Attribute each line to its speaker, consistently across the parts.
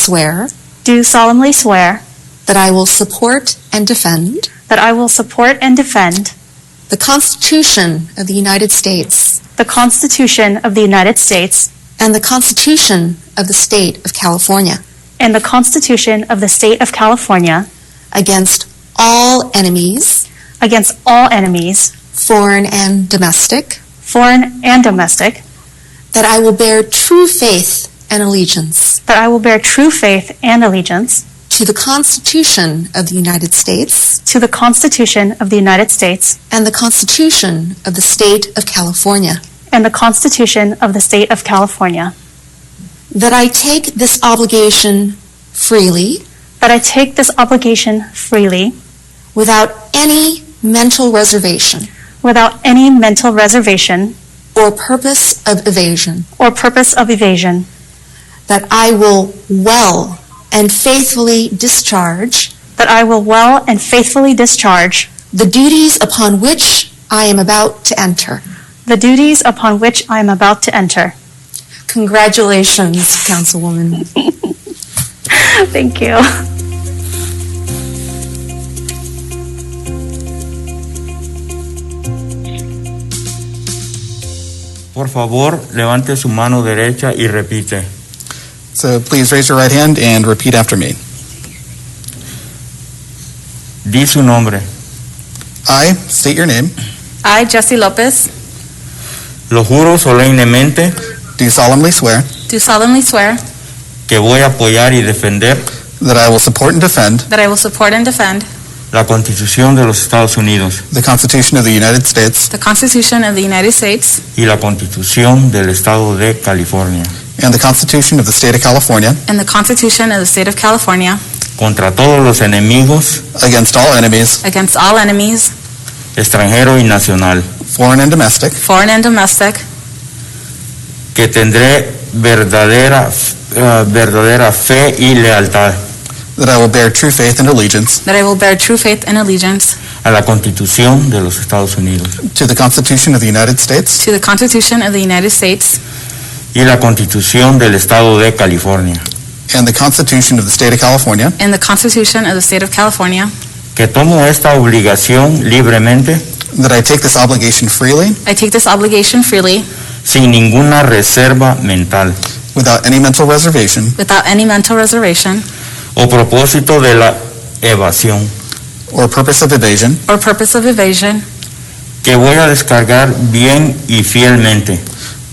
Speaker 1: swear
Speaker 2: do solemnly swear
Speaker 1: that I will support and defend
Speaker 2: that I will support and defend
Speaker 1: the Constitution of the United States
Speaker 2: the Constitution of the United States
Speaker 1: and the Constitution of the State of California
Speaker 2: and the Constitution of the State of California
Speaker 1: against all enemies,
Speaker 2: against all enemies,
Speaker 1: foreign and domestic,
Speaker 2: foreign and domestic,
Speaker 1: that I will bear true faith and allegiance
Speaker 2: that I will bear true faith and allegiance
Speaker 1: to the Constitution of the United States
Speaker 2: to the Constitution of the United States
Speaker 1: and the Constitution of the State of California,
Speaker 2: and the Constitution of the State of California,
Speaker 1: that I take this obligation freely
Speaker 2: that I take this obligation freely
Speaker 1: without any mental reservation
Speaker 2: without any mental reservation
Speaker 1: or purpose of evasion,
Speaker 2: or purpose of evasion,
Speaker 1: that I will well and faithfully discharge
Speaker 2: that I will well and faithfully discharge
Speaker 1: the duties upon which I am about to enter.
Speaker 2: the duties upon which I am about to enter.
Speaker 1: Congratulations, Councilwoman.
Speaker 2: Thank you.
Speaker 3: Por favor, levante su mano derecha y repite.
Speaker 4: So please raise your right hand and repeat after me.
Speaker 3: Di su nombre.
Speaker 4: I state your name,
Speaker 5: I, Jesse Lopez,
Speaker 3: Lo juro solemnemente
Speaker 4: do solemnly swear
Speaker 5: do solemnly swear
Speaker 3: que voy a apoyar y defender
Speaker 4: that I will support and defend
Speaker 5: that I will support and defend
Speaker 3: la Constitución de los Estados Unidos
Speaker 4: the Constitution of the United States
Speaker 5: the Constitution of the United States
Speaker 3: y la Constitución del Estado de California
Speaker 4: and the Constitution of the State of California
Speaker 5: and the Constitution of the State of California
Speaker 3: contra todos los enemigos
Speaker 4: against all enemies,
Speaker 5: against all enemies,
Speaker 3: extranjero y nacional,
Speaker 4: foreign and domestic,
Speaker 5: foreign and domestic,
Speaker 3: que tendré verdadera, eh, verdadera fe y lealtad
Speaker 4: that I will bear true faith and allegiance
Speaker 5: that I will bear true faith and allegiance
Speaker 3: a la Constitución de los Estados Unidos
Speaker 4: to the Constitution of the United States
Speaker 5: to the Constitution of the United States
Speaker 3: y la Constitución del Estado de California,
Speaker 4: and the Constitution of the State of California,
Speaker 5: and the Constitution of the State of California.
Speaker 3: que tomo esta obligación libremente
Speaker 4: that I take this obligation freely
Speaker 5: I take this obligation freely
Speaker 3: sin ninguna reserva mental
Speaker 4: without any mental reservation
Speaker 5: without any mental reservation
Speaker 3: o propósito de la evasión,
Speaker 4: or purpose of evasion,
Speaker 5: or purpose of evasion,
Speaker 3: que voy a descargar bien y fielmente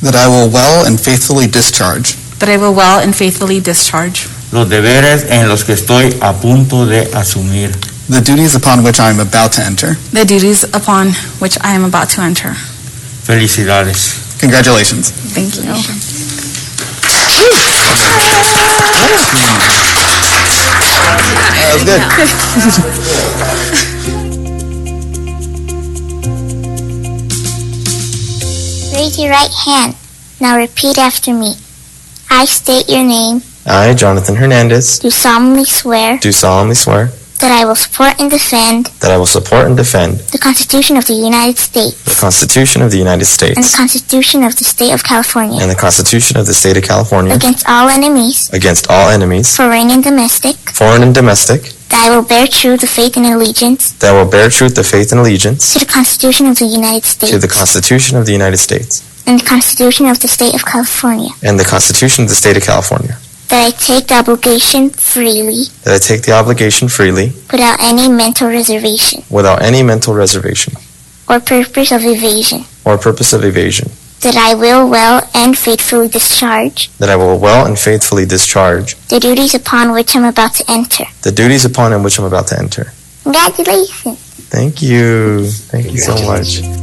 Speaker 4: that I will well and faithfully discharge
Speaker 5: that I will well and faithfully discharge
Speaker 3: los deberes en los que estoy a punto de asumir.
Speaker 4: the duties upon which I am about to enter.
Speaker 5: the duties upon which I am about to enter.
Speaker 3: Felicidades.
Speaker 4: Congratulations.
Speaker 5: Thank you.
Speaker 4: That was good.
Speaker 6: Raise your right hand. Now repeat after me. I state your name,
Speaker 7: I, Jonathan Hernandez,
Speaker 6: do solemnly swear
Speaker 7: do solemnly swear
Speaker 6: that I will support and defend
Speaker 7: that I will support and defend
Speaker 6: the Constitution of the United States
Speaker 7: the Constitution of the United
Speaker 6: and the
Speaker 7: States
Speaker 6: Constitution of the State of California
Speaker 7: and the Constitution of the State of California
Speaker 6: against all enemies,
Speaker 7: against all enemies,
Speaker 6: foreign and domestic,
Speaker 7: foreign and domestic,
Speaker 6: that I will bear true the faith and allegiance
Speaker 7: that I will bear true the faith and allegiance
Speaker 6: to the Constitution of the United
Speaker 7: to the
Speaker 6: States
Speaker 7: Constitution of the United States
Speaker 6: and the Constitution of the State of California,
Speaker 7: and the Constitution of the State of California,
Speaker 6: that I take the obligation freely
Speaker 7: that I take the obligation freely
Speaker 6: without any mental reservation
Speaker 7: without any mental reservation
Speaker 6: or purpose of evasion,
Speaker 7: or purpose of evasion,
Speaker 6: that I will well and faithfully discharge
Speaker 7: that I will well and faithfully discharge
Speaker 6: the duties upon which I'm about to enter.
Speaker 7: the duties upon which I'm about to enter.
Speaker 6: Congratulations.
Speaker 7: Thank you. Thank you so much.